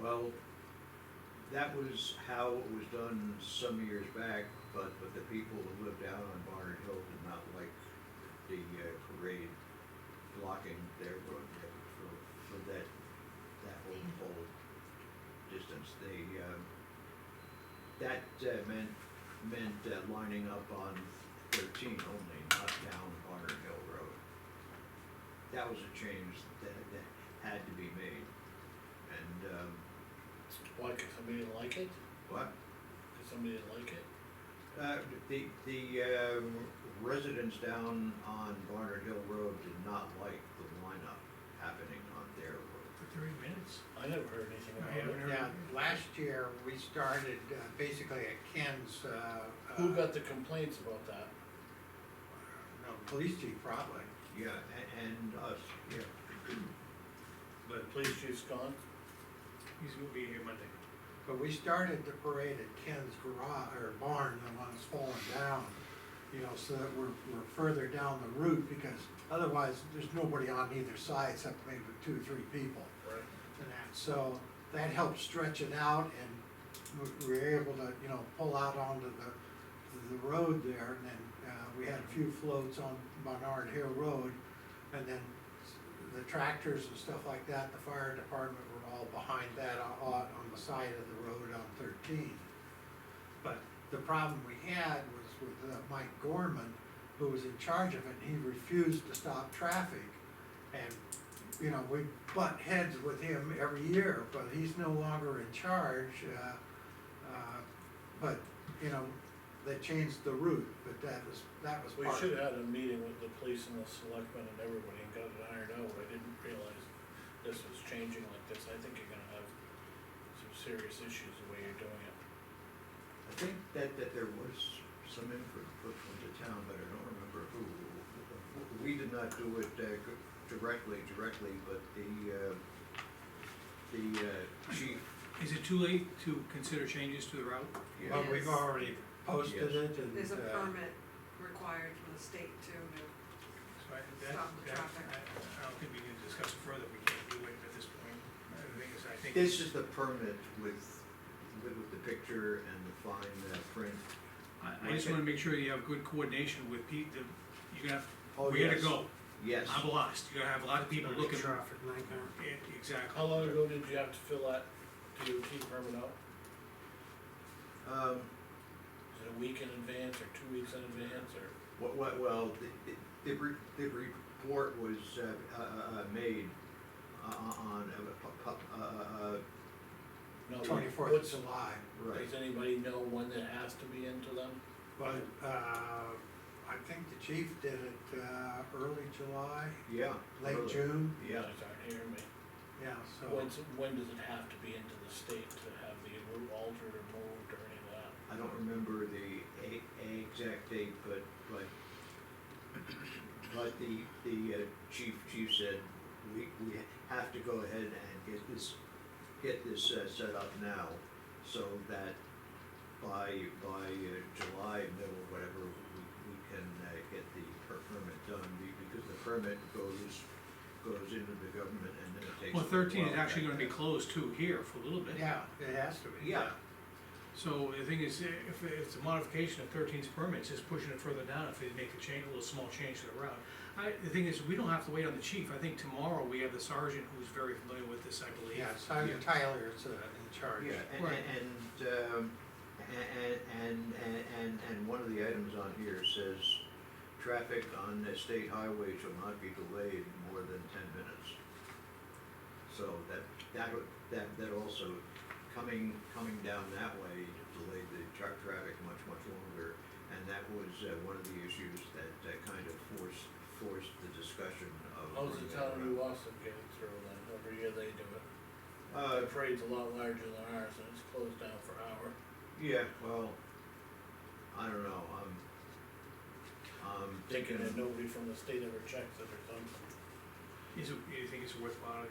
Well, that was how it was done some years back, but, but the people who lived out on Barnard Hill did not like the uh, parade blocking their road for, for that, that whole, whole distance. They, um, that uh, meant, meant uh, lining up on thirteen only, not down Barnard Hill Road. That was a change that, that had to be made. And, um, Why, cause somebody didn't like it? what, Cause somebody didn't like it? uh, the, the, um, residents down on Barnard Hill Road did not like the lineup happening on their road. For thirty minutes? I never heard anything I about haven't it. heard- Yeah, last year, we started uh, basically at Ken's, uh. uh, Who got the complaints about that? No, police chief probably. Yeah, a- and us, yeah. The police chief's gone? He's gonna be here Monday. But we started the parade at Ken's garage, or barn, the one that's fallen down, you know, so that we're, we're further down the route, because otherwise, there's nobody on either side except maybe two or three people. Right. And that, so that helped stretch it out, and we- we were able to, you know, pull out onto the, the road there, and then, uh, we had a few floats on Barnard Hill Road, and then the tractors and stuff like that, the fire department were all behind that, on, on the side of the road on thirteen. But the problem we had was with uh, Mike Gorman, who was in charge of it, and he refused to stop traffic. And, you know, we butt heads with him every year, but he's no longer in charge, uh, uh, but, you know, they changed the route, but that was, that was We part of should it. have had a meeting with the police and the selectmen and everybody and got it ironed out, I didn't realize this was changing like this, I think you're gonna have some serious issues the way you're doing it. I think that, that there was some input put from the town, but I don't remember who. We did not do it uh, directly, directly, but the, uh, the uh, chief, Is it too late to consider changes to the route? yeah. Well, we've Yes. already posted Yes. it and. There's a uh, permit required from the state too, to- So I, that, Stop the that, traffic. I, I don't think we can discuss it further, we can't do it at this point. The thing is, I think. This is the permit with, with with the picture and the fine uh, print. I, I just wanna make sure you have good coordination with Pete, the, you're gonna, Oh, have we gotta yes. go, Yes, I'm lost, you're gonna have a lot of people looking. Traffic nightmare. Yeah, Exactly. How long ago did you have to fill that DOT permit out? um, Is it a week in advance or two weeks in advance or? what, what, well, the, the, the re- the report was, uh, uh, uh, made uh, on, uh, uh, uh, uh, no, Twenty-fourth of what's- July, right. Does anybody know when that has to be into them? but, uh, I think the chief did it, uh, early July, Yeah. late early. June, Yeah, Guys aren't hearing me. yeah, so. When's, when does it have to be into the state to have the route altered or moved or any of that? I don't remember the a, a exact date, but, but, but the, the uh, chief, chief said, we, we have to go ahead and get this, get this uh, set up now, so that by, by uh, July, middle, whatever, we, we can uh, get the per- permit done, be- because the permit goes, goes into the government and then it takes. a Well, little thirteen is while. actually gonna be closed too here for a little bit. Yeah, it has to be. Yeah, So the thing is, if it's a modification of 13's permit, it's just pushing it further down if they make a change, a little small change to the route. I, the thing is, we don't have to wait on the chief, I think tomorrow we have the sergeant who's very familiar with this, I believe. Yeah, Simon Tyler's, uh, in charge. Yeah, and, Right. and, um, a- a- and, and, and, and one of the items on here says, traffic on the state highway shall not be delayed more than ten minutes. So that, that, would- that, that also, coming, coming down that way delayed the truck traffic much, much longer. And that was, uh, one of the issues that, uh kind of forced, forced the discussion of. How's the town of New Boston getting through then? Every year they do it. Uh, The parade's a lot larger than ours and it's closed down for an hour. Yeah, well, I don't know, I'm, I'm thinking, Thinking that nobody from the state ever checks it or something. Is it, you think it's worthwhile?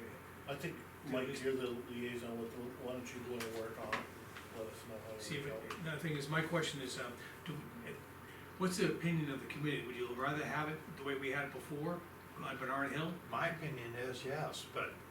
I think, Do Mike, we- you're the liaison with, the- why don't you go to work on it? Let us know how See, it if it- goes. no, the thing is, my question is, um, do, what's the opinion of the committee? Would you rather have it the way we had it before on Bernard Hill? My opinion is yes, but